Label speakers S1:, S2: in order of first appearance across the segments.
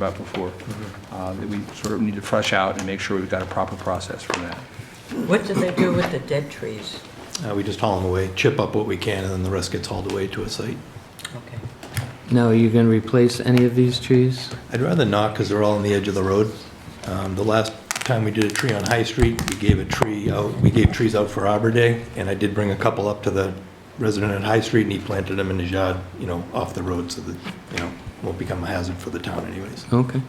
S1: about before, uh, that we sort of need to fresh out and make sure we've got a proper process for that.
S2: What do they do with the dead trees?
S3: Uh, We just haul them away, chip up what we can, and then the rest gets hauled away to a site.
S2: Okay.
S4: Now, are you going to replace any of these trees?
S3: I'd rather not, because they're all on the edge of the road. Um, The last time we did a tree on High Street, we gave a tree out, we gave trees out for Arbor Day, and I did bring a couple up to the resident at High Street, and he planted them in his yard, you know, off the road, so that, you know, won't become a hazard for the town anyways.
S4: Okay.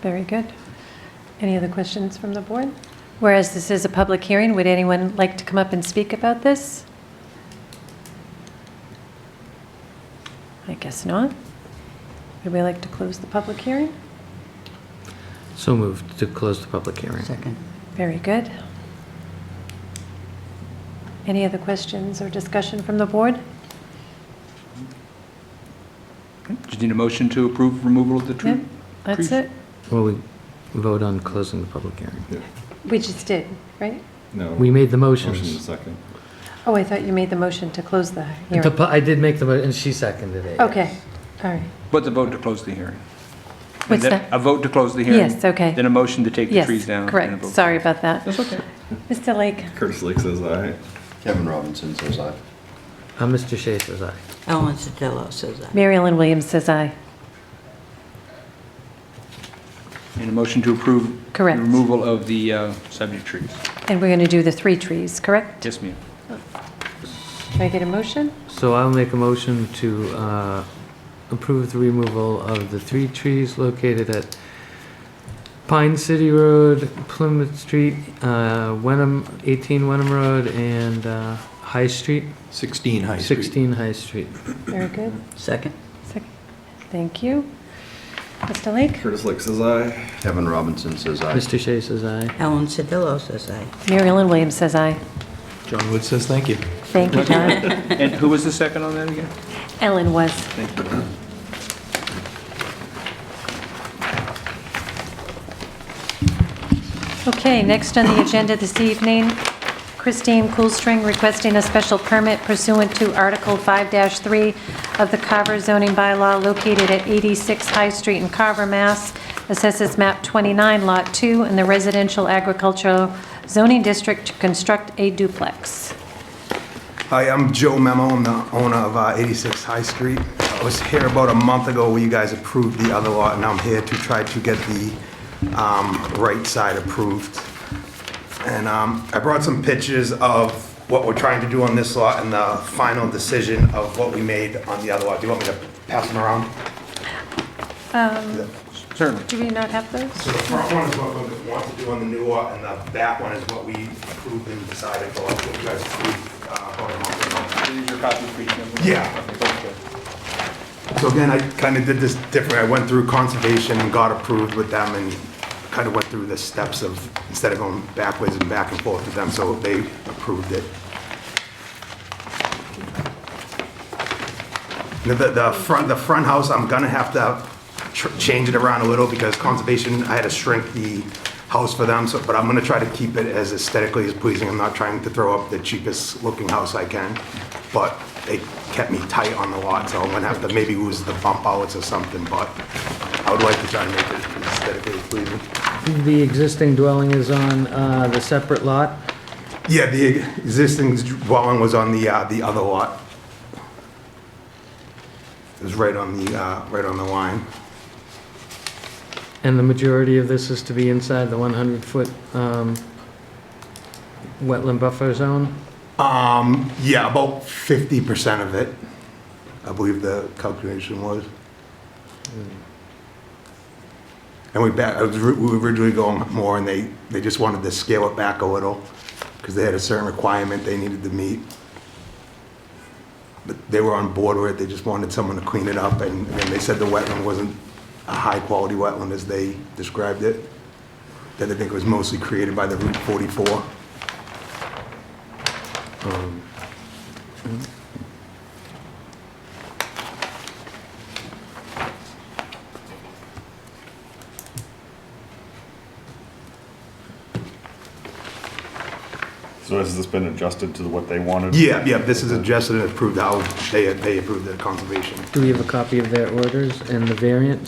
S5: Very good. Any other questions from the board? Whereas this is a public hearing, would anyone like to come up and speak about this? I guess not. Would we like to close the public hearing?
S4: So moved to close the public hearing.
S2: Second.
S5: Very good. Any other questions or discussion from the board?
S1: Just need a motion to approve removal of the
S5: Yeah,
S1: tree?
S5: that's
S1: Appreciate-
S5: it.
S4: Well, we vote on closing the public hearing.
S5: We just did, right?
S6: No.
S4: We made the
S6: Motion in a
S4: motions.
S6: second.
S5: Oh, I thought you made the motion to close the
S4: The
S5: hearing.
S4: pu- I did make the, mo- and she seconded it.
S5: Okay, all right.
S1: What's a vote to close the hearing? And
S5: What's
S1: then
S5: that?
S1: A vote to close the hearing?
S5: Yes, okay.
S1: Then a motion to take the trees
S5: Yes,
S1: down? and a
S5: correct.
S1: vote.
S5: Sorry about that.
S1: That's okay.
S5: Mr. Lake?
S6: Curtis Lake says aye.
S7: Kevin Robinson says aye.
S4: Uh, Mr. Shea says aye.
S2: Ellen Sotelo says aye.
S5: Mary Ellen Williams says aye.
S1: And a motion to approve?
S5: Correct.
S1: the Removal of the uh, subject trees.
S5: And we're going to do the three trees, correct?
S1: Yes, ma'am.
S5: Can I get a motion?
S4: So I'll make a motion to uh, approve the removal of the three trees located at Pine City Road, Plymouth Street, uh, Wenham, 18 Wenham Road, and uh, High Street,
S3: 16 High Street.
S4: 16 High Street.
S5: Very good.
S2: Second.
S5: Second. Thank you. Mr. Lake?
S6: Curtis Lake says aye.
S7: Kevin Robinson says aye.
S4: Mr. Shea says aye.
S2: Ellen Sotelo says aye.
S5: Mary Ellen Williams says aye.
S3: John Wood says thank you.
S5: Thank you, John.
S1: And who was the second on that again?
S5: Ellen was. Okay, next on the agenda this evening, Christine Coolstring requesting a special permit pursuant to Article 5-3 of the Carver zoning bylaw located at 86 High Street in Carver, Mass. Assesses map 29, Lot 2, in the residential agricultural zoning district to construct a duplex.
S8: Hi, I'm Joe Memo, I'm the owner of uh, 86 High Street. I was here about a month ago where you guys approved the other lot, and I'm here to try to get the um, right side approved. And um, I brought some pictures of what we're trying to do on this lot and the final decision of what we made on the other lot. Do you want me to pass them around?
S1: Certainly.
S5: Do we not have those?
S8: So the front one is what we want to do on the new lot, and the back one is what we approved and decided, for what you guys approved uh, about a month ago.
S1: These are copies for each member?
S8: Yeah.
S1: Okay.
S8: So again, I kind of did this different, I went through conservation and got approved with them and kind of went through the steps of, instead of going backwards and back and forth with them, so they approved it. The, the- the front, the front house, I'm gonna have to tr- change it around a little because conservation, I had to shrink the house for them, so, but I'm gonna try to keep it as aesthetically as pleasing. I'm not trying to throw up the cheapest looking house I can, but they kept me tight on the lot, so I'm gonna have to maybe lose the bump outs or something, but I would like to try and make it aesthetically pleasing.
S4: The existing dwelling is on uh, the separate lot.
S8: Yeah, the e, existing dwelling was on the, uh, the other lot. It was right on the, uh, right on the line.
S4: And the majority of this is to be inside the 100-foot um, wetland buffer zone?
S8: Um, yeah, about fifty percent of it, I believe the calculation was. And we back, I was, we were originally going more and they, they just wanted to scale it back a little, because they had a certain requirement they needed to meet. But they were on board with it, they just wanted someone to clean it up and, and they said the wetland wasn't a high-quality wetland as they described it. That I think was mostly created by the Route forty-four.
S6: So So has this been adjusted to what they wanted?
S8: Yeah, yeah, this is adjusted and approved how they, they approved the conservation.
S4: Do we have a copy of their orders and the variant?